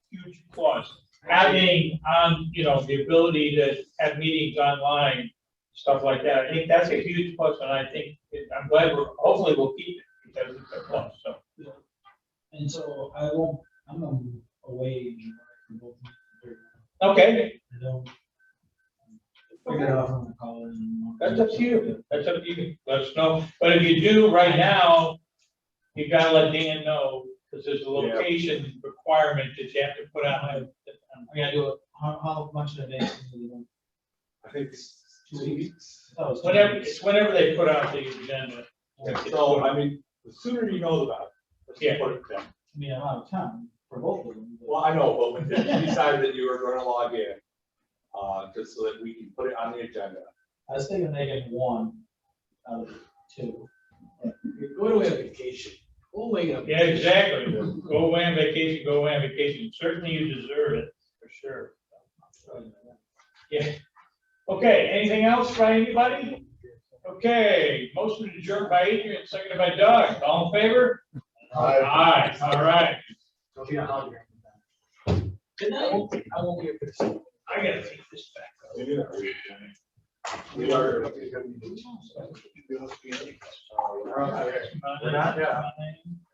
clause, having, um, you know, the ability to have meetings online, stuff like that, I think that's a huge plus, and I think, it- I'm glad we're, hopefully we'll keep it, because it's a plus, so. And so I won't, I'm gonna be away. in July for both of them. Okay, I don't. Figure it out from the college. that's up to you, that's up to you, let us know, but if you do right now, you gotta let Dan know, because there's a Yeah. location requirement that you have to put out. on- I gotta do it, how, how much in advance? do you want? I think it's Two two weeks. I thought it was- Whenever, it's whenever they put out the agenda. So, I mean, the sooner you know about it, let's Yeah. put it down. I mean, I'm out of town for both of them. but- Well, I know, but when you decided that you were gonna log in, uh, just so that we can put it on the agenda. I was thinking they get one out of two. You're going away on vacation. Go away on. Yeah, exactly. Go away on vacation, go away on vacation. Certainly you deserve it, for sure. Yeah. Okay, anything else by anybody? Okay, motion to adjourn by Adrian, seconded by Doug. All in favor? Aye, all right. Don't be a hog. Good night. I won't be here for this. I gotta take this back. Maybe not. We are. We're not, Uh, yeah.